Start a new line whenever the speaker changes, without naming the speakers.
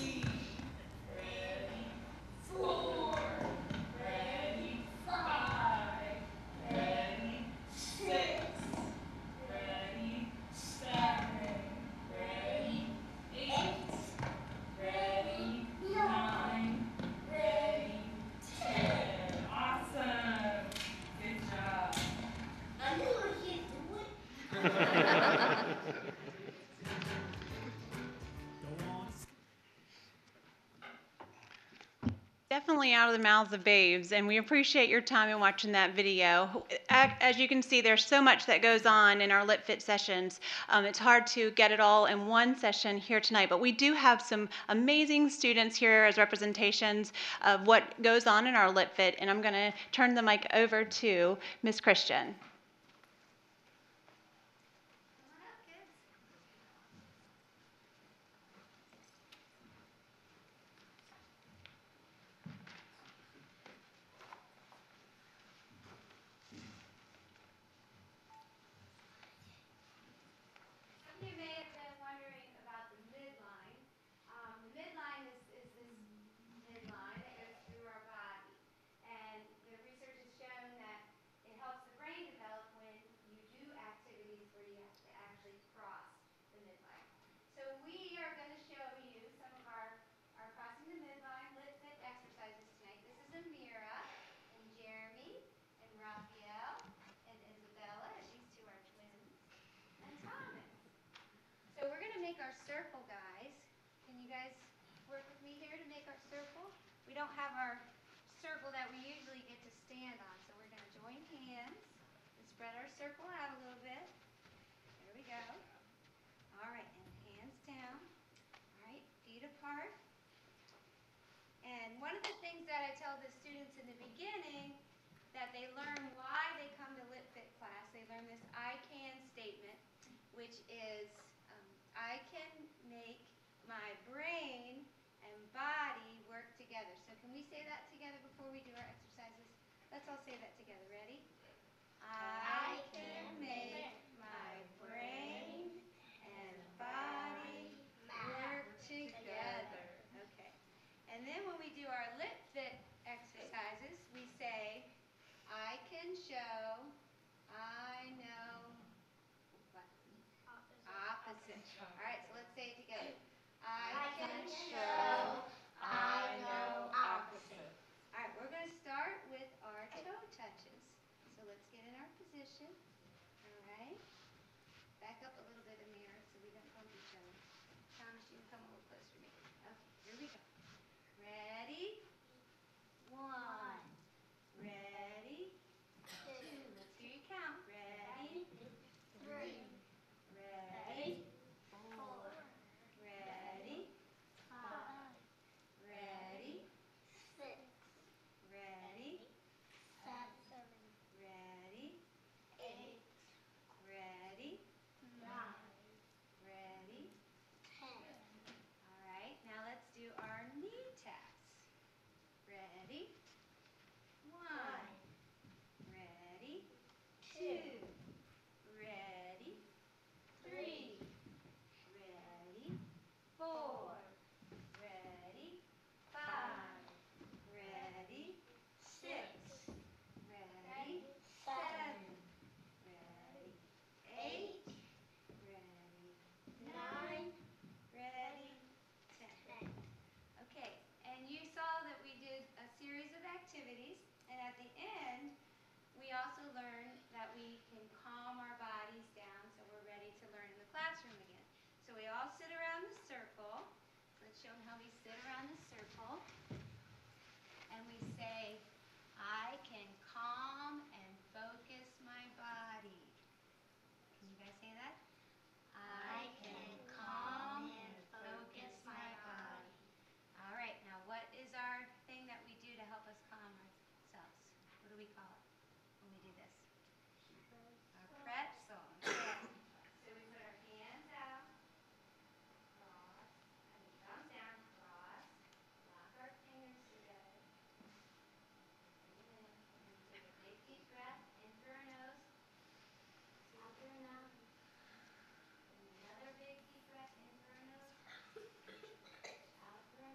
Definitely out of the mouths of babes, and we appreciate your time in watching that video. Ac- As you can see, there's so much that goes on in our Lit Fit sessions. Um, it's hard to get it all in one session here tonight, but we do have some amazing students here as representations of what goes on in our Lit Fit, and I'm going to turn the mic over to Miss Christian.
Some of you may have been wondering about the midline. Um, the midline is, is this midline that goes through our body. And the research has shown that it helps the brain develop when you do activities where you have to actually cross the midline. So we are going to show you some of our, our crossing the midline lit fit exercises tonight. This is Amira and Jeremy and Raphael and Isabella, as these two are twins, and Thomas. So we're gonna make our circle, guys. Can you guys work with me here to make our circle? We don't have our circle that we usually get to stand on, so we're gonna join hands and spread our circle out a little bit. There we go. All right, and hands down. All right, feet apart. And one of the things that I tell the students in the beginning, that they learn why they come to Lit Fit class, they learn this I can statement, which is um, I can make my brain and body work together. So can we say that together before we do our exercises? Let's all say that together. Ready? I can make my brain and body work together. Okay. And then when we do our lip fit exercises, we say, I can show, I know, what? Opposite. All right, so let's say it together. I can show, I know opposite. All right, we're going to start with our toe touches. So let's get in our position. All right. Back up a little bit, Amir, so we don't bump each other. Thomas, you can come a little closer to me. Okay, here we go. Ready? One. Ready? Two. Let's hear you count. Ready? Three. Ready? Four. Ready? Five. Ready?
Six, seven, eight,
Ready? Ready?
nine,
Ready? Ready?
ten.
All right, now let's do our knee taps. Ready? One. Ready?
Two.
Two. Ready?
Three.
Ready? Four. Ready? Five. Ready? Six. Ready? Seven. Ready? Eight. Ready?
Nine.
Ready? Ten.
Ten.
Okay, and you saw that we did a series of activities, and at the end, we also learned that we can calm our bodies down so we're ready to learn in the classroom again. So we all sit around the circle. Let's show them how we sit around the circle.